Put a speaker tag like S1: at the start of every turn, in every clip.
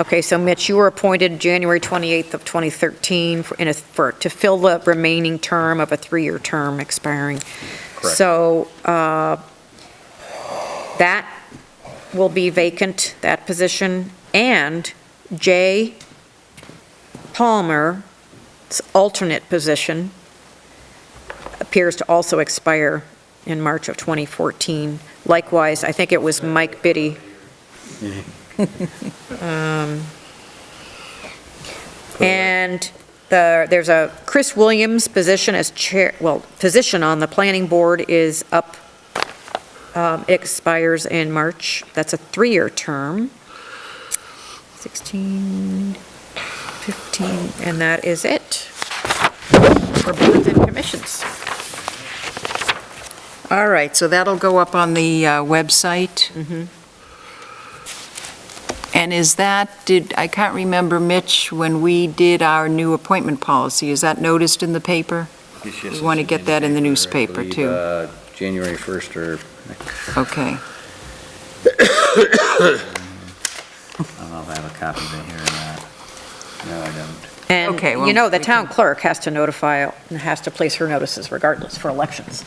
S1: Okay, so Mitch, you were appointed January 28th of 2013 for, in a, for, to fill the remaining term of a three-year term expiring.
S2: Correct.
S1: So, uh, that will be vacant, that position, and Jay Palmer's alternate position appears to also expire in March of 2014. Likewise, I think it was Mike Biddy. Um, And the, there's a Chris Williams position as chair, well, position on the planning board is up, um, expires in March. That's a three-year term. 16, 15, and that is it for boards and commissions.
S3: All right, so that'll go up on the uh, website. And is that, did, I can't remember, Mitch, when we did our new appointment policy, is that noticed in the paper?
S2: Yes, yes,
S3: We wanna
S2: it's
S3: get that in the newspaper,
S2: I believe,
S3: too.
S2: uh, January 1st or,
S3: Okay,
S2: I don't know if I have a copy of it here or not. No, I don't.
S1: And,
S3: Okay, well,
S1: you know, the
S3: we
S1: town clerk has to notify, has to place her notices regardless for elections.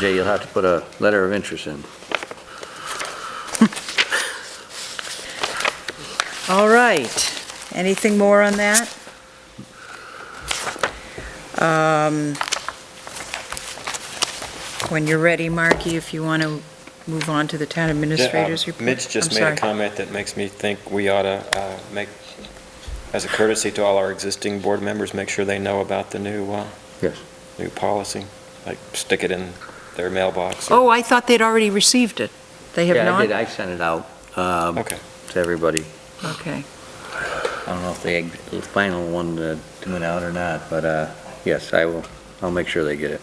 S2: Jay, you'll have to put a letter of interest in.
S3: all right. Anything more on that? Um, When you're ready, Marky, if you want to move on to the town
S4: Yeah, um,
S3: administrator's report.
S4: Mitch just
S3: I'm
S4: made a
S3: sorry.
S4: comment that makes me think we ought to uh, make, as a courtesy to all our existing board members, make sure they know about the new, uh,
S2: Yes.
S4: new policy, like stick it in their mailbox. or-
S3: Oh, I thought they'd already received it. They have
S2: Yeah, I
S3: not?
S2: did, I sent it out um,
S4: Okay.
S2: to everybody.
S3: Okay,
S2: I don't know if the ag- the final one uh, went out or not, but uh, yes, I will, I'll make sure they get it.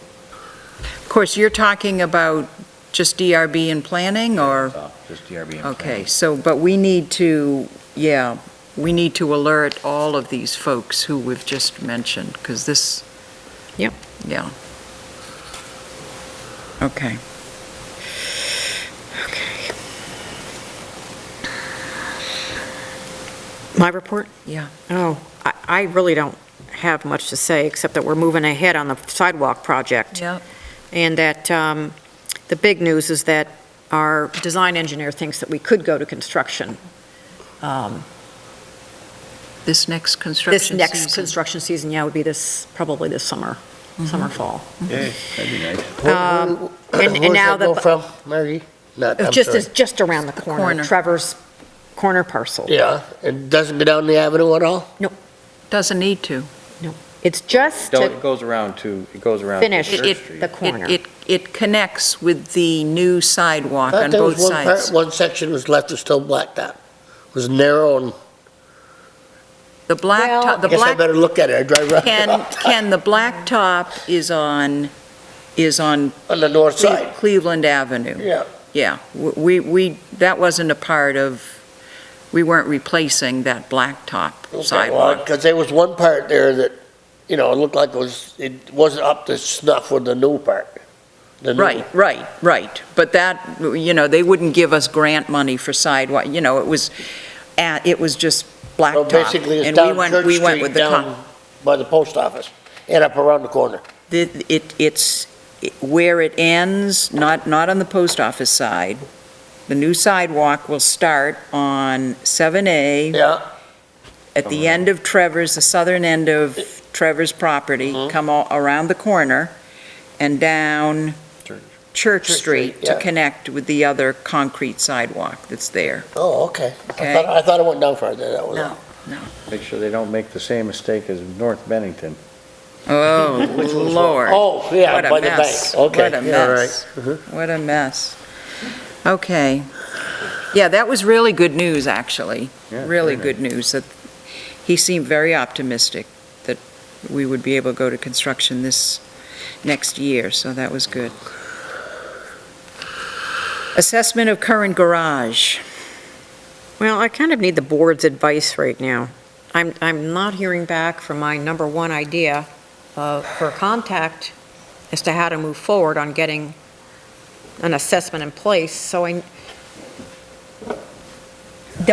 S3: of course, you're talking about just DRB and planning, or,
S2: So, Just DRB. and
S3: okay, so, but we need to, yeah, we need to alert all of these folks who we've just mentioned, because this.
S1: Yep.
S3: Yeah. Okay. Okay,
S1: My report?
S3: yeah,
S1: Oh, I, I really don't have much to say, except that we're moving ahead on the sidewalk project.
S3: yeah,
S1: And that, um, the big news is that our design engineer thinks that we could go to construction, um,
S3: this next construction
S1: this
S3: season. Mm-hmm.
S1: next construction season, yeah, would be this, probably this summer, summer, fall.
S2: planning. That'd be nice.
S1: Um, and- and
S5: Where's
S1: now
S5: that go
S1: the-
S5: from, Mary? Not, I'm
S1: Just,
S5: sorry.
S1: as- just around the corner,
S3: corner.
S1: Trevor's corner parcel.
S5: Yeah, it doesn't go down the avenue at all?
S3: Doesn't need to.
S1: It's just
S2: No,
S1: to
S2: It goes around to, it goes around. to
S1: Finish
S2: Church
S3: it-
S2: Street.
S1: the
S3: It-
S1: corner.
S3: It, it connects with the new sidewalk
S5: I thought
S3: on
S5: there
S3: both
S5: was one part,
S3: sides.
S5: one section was left was still blacked out. It was narrow and,
S3: The black,
S1: Well-
S3: to- the
S5: I guess I
S3: black
S5: better look at it, I drive right
S3: Ken, Ken, the black top is on, is on
S5: on the north
S3: Cle-
S5: side.
S3: Cleveland Avenue.
S5: Yeah,
S3: Yeah, we, we, that wasn't a part of, we weren't replacing that black top
S5: okay, well,
S3: sidewalk.
S5: because there was one part there that, you know, it looked like it was, it wasn't up to snuff with the new part. The new-
S3: Right, right, right. But that, you know, they wouldn't give us grant money for sidewalk, you know, it was, at- it was just black
S5: So
S3: top.
S5: basically, it's
S3: and we
S5: down
S3: went-
S5: Church
S3: we went with
S5: Street,
S3: the con-
S5: down by the post office, and up around the corner.
S3: The- It, it's where it ends, not, not on the post office side. The new sidewalk will start on 7A
S5: Yeah,
S3: at the end of Trevor's, the southern end of Trevor's property, come all around the corner and down
S4: Church.
S3: Church Street
S5: Street,
S3: to
S5: yeah.
S3: connect with the other concrete sidewalk that's there.
S5: oh, okay. I
S3: Okay.
S5: thought, I thought it went down further, that was all.
S3: No.
S2: Make sure they don't make the same mistake as North Bennington.
S3: Oh, Lord.
S5: Oh, yeah,
S3: What a
S5: by the bank,
S3: mess.
S5: okay.
S3: What a
S5: yeah, all
S3: mess.
S5: right. Mhm.
S3: What a mess. Okay. Yeah, that was really good news, actually.
S2: Yeah,
S3: Really
S2: very
S3: good news. That He seemed very optimistic that we would be able to go to construction this next year, so that was good. Assessment of current garage.
S1: Well, I kind of need the board's advice right now. I'm, I'm not hearing back from my number one idea uh, for contact as to how to move forward on getting an assessment in place, so I,